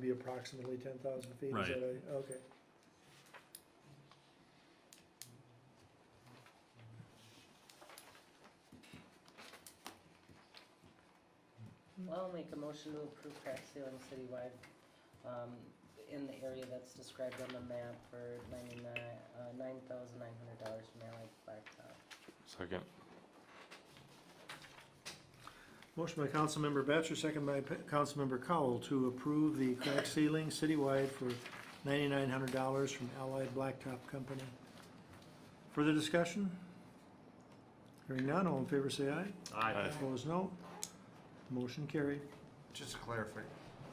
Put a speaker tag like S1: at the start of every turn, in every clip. S1: be approximately ten thousand feet, is
S2: Right.
S1: that right? Okay.
S3: I'll make a motion to approve crack ceiling citywide, um, in the area that's described on the map for ninety-nine, uh, nine thousand nine hundred dollars from Allied Blacktop.
S4: Second.
S1: Motion by Councilmember Batchor, second by P- Councilmember Cowell to approve the crack ceiling citywide for ninety-nine hundred dollars from Allied Blacktop Company. Further discussion? Hearing none, all in favor say aye.
S4: Aye.
S1: Opposed, no. Motion carried.
S5: Just to clarify,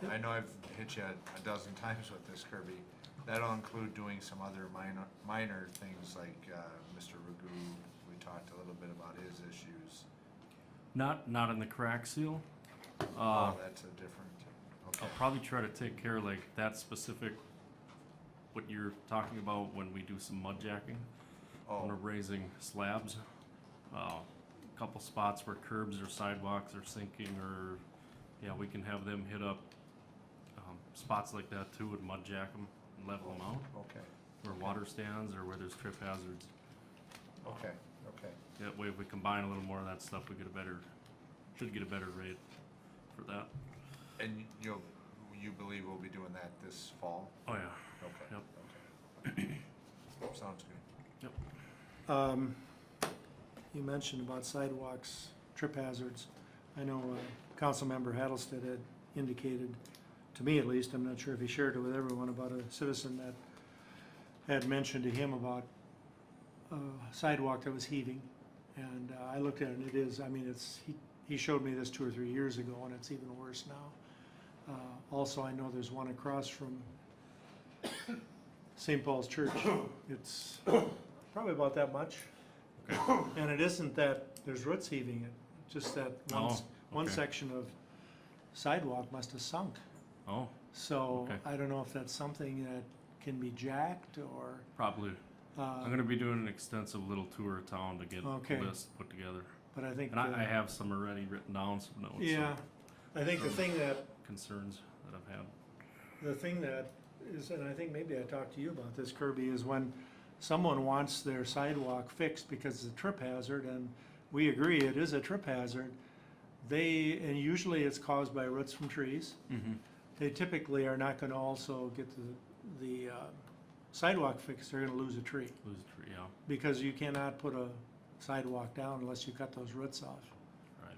S1: Yep.
S5: I know I've hit you a dozen times with this Kirby, that'll include doing some other minor, minor things like, uh, Mr. Magoo, we talked a little bit about his issues.
S2: Not, not in the crack seal. Uh, oh,
S5: Oh, that's a different, okay,
S2: I'll probably try to take care of like that specific, what you're talking about when we do some mud jacking. When we're
S5: oh,
S2: raising slabs. Uh, a couple spots where curbs or sidewalks are sinking or, yeah, we can have them hit up, um, spots like that too and mud jack them and level them out.
S5: okay,
S2: Where water stands or where there's trip hazards.
S5: okay, okay.
S2: That way, if we combine a little more of that stuff, we get a better, should get a better rate for that.
S5: And you'll, you believe we'll be doing that this fall?
S2: Oh, yeah.
S5: Okay,
S2: Yep.
S5: okay. Sounds good.
S1: Um, you mentioned about sidewalks, trip hazards. I know, uh, Councilmember Hattlestead had indicated, to me at least, I'm not sure if he shared it with everyone, about a citizen that had mentioned to him about a sidewalk that was heaving. And uh, I looked at it and it is, I mean, it's, he, he showed me this two or three years ago and it's even worse now. Uh, also, I know there's one across from St. Paul's Church. It's probably about that much. And it isn't that there's roots heaving it, just that one, s-
S2: Oh,
S1: one
S2: okay.
S1: section of sidewalk must have sunk.
S2: Oh,
S1: So
S2: Okay.
S1: I don't know if that's something that can be jacked or,
S2: probably. I'm
S1: uh,
S2: gonna be doing an extensive little tour of town to get
S1: Okay.
S2: a list put together,
S1: but I think.
S2: and I,
S1: the-
S2: I have some already written down, some notes,
S1: Yeah,
S2: some
S1: I think the thing that,
S2: concerns that I've had.
S1: the thing that is, and I think maybe I talked to you about this Kirby, is when someone wants their sidewalk fixed because it's a trip hazard, and we agree it is a trip hazard, they, and usually it's caused by roots from trees. They typically are not gonna also get the, the uh, sidewalk fixed, they're gonna lose a tree.
S2: Lose a tree, yeah,
S1: because you cannot put a sidewalk down unless you cut those roots off.
S2: right,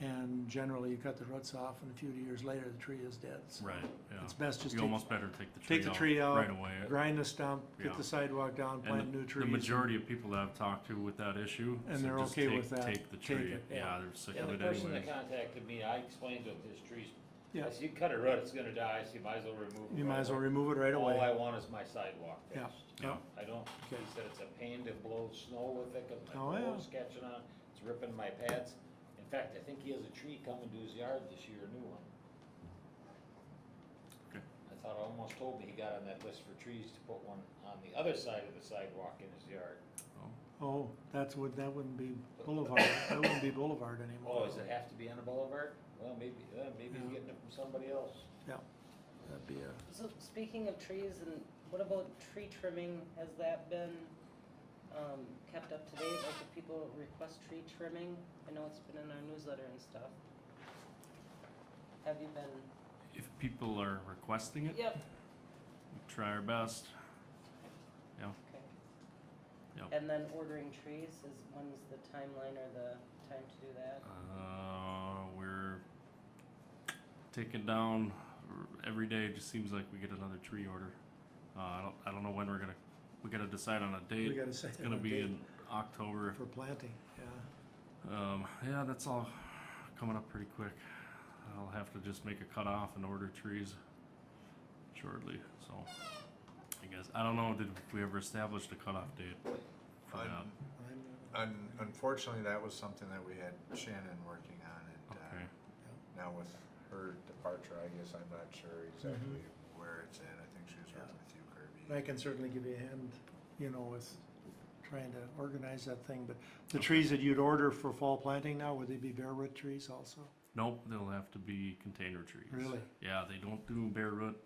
S1: And generally, you cut the roots off, and a few years later, the tree is dead. So
S2: right,
S1: It's
S2: yeah.
S1: best just
S2: You
S1: take,
S2: almost better take the
S1: take the
S2: tree out right
S1: tree out,
S2: away.
S1: grind the stump, get
S2: Yeah.
S1: the sidewalk down,
S2: And
S1: plant
S2: the-
S1: new trees.
S2: The majority of people that I've talked to with that issue.
S1: And
S2: said
S1: they're
S2: just
S1: okay
S2: take-
S1: with that.
S2: Take the
S1: Take
S2: tree,
S1: it,
S2: yeah, they're sick
S6: Yeah,
S2: of
S6: the
S2: it
S6: person
S2: anyways.
S6: that contacted me, I explained to him this tree's,
S1: Yeah,
S6: I said, you cut a root, it's gonna die, so you might as well remove it.
S1: you might as well
S6: right
S1: remove it right
S6: away. All I
S1: away.
S6: want is my sidewalk
S1: Yeah.
S6: fixed.
S2: Yeah.
S6: I don't, he
S1: Okay.
S6: said it's a pain to blow snow with it, 'cause
S1: Oh,
S6: my
S1: yeah.
S6: blow's catching on, it's ripping my pads. In fact, I think he has a tree coming to his yard this year, a new one.
S2: Okay.
S6: I thought, I almost told me he got on that list for trees to put one on the other side of the sidewalk in his yard.
S1: Oh, that's would, that wouldn't be boulevard, that wouldn't be boulevard anymore.
S6: Oh, does it have to be on a boulevard? Well, maybe, uh, maybe he's
S1: Mm-hmm. Yeah.
S6: getting it from somebody else.
S1: That'd be a,
S3: So speaking of trees and what about tree trimming? Has that been, um, kept up to date? Like if people request tree trimming? I know it's been in our newsletter and stuff. Have you been?
S2: If people are requesting it,
S3: Yep.
S2: we try our best.
S3: Okay.
S2: Yep.
S3: And then ordering trees is, when's the timeline or the time to do that?
S2: Uh, we're taking down every day. It just seems like we get another tree order. Uh, I don't, I don't know when we're gonna. We gotta decide on a
S1: we
S2: date.
S1: gotta say.
S2: It's gonna be in October.
S1: For planting, yeah.
S2: Um, yeah, that's all coming up pretty quick. I'll have to just make a cutoff and order trees shortly. So, I guess I don't know. Did we ever established a cutoff date? For that?
S5: Un- un- unfortunately, that was something that we had Shannon working on and, uh,
S2: Okay.
S5: now with her departure, I guess I'm not sure exactly where it's at. I think she was working with you,
S1: I
S5: Kirby.
S1: can certainly give you a hand, you know, with trying to organize that thing, but the trees that you'd order for fall planting now, would they be bare root trees also?
S2: Nope, they'll have to be container trees.
S1: Really?
S2: Yeah, they don't do bare root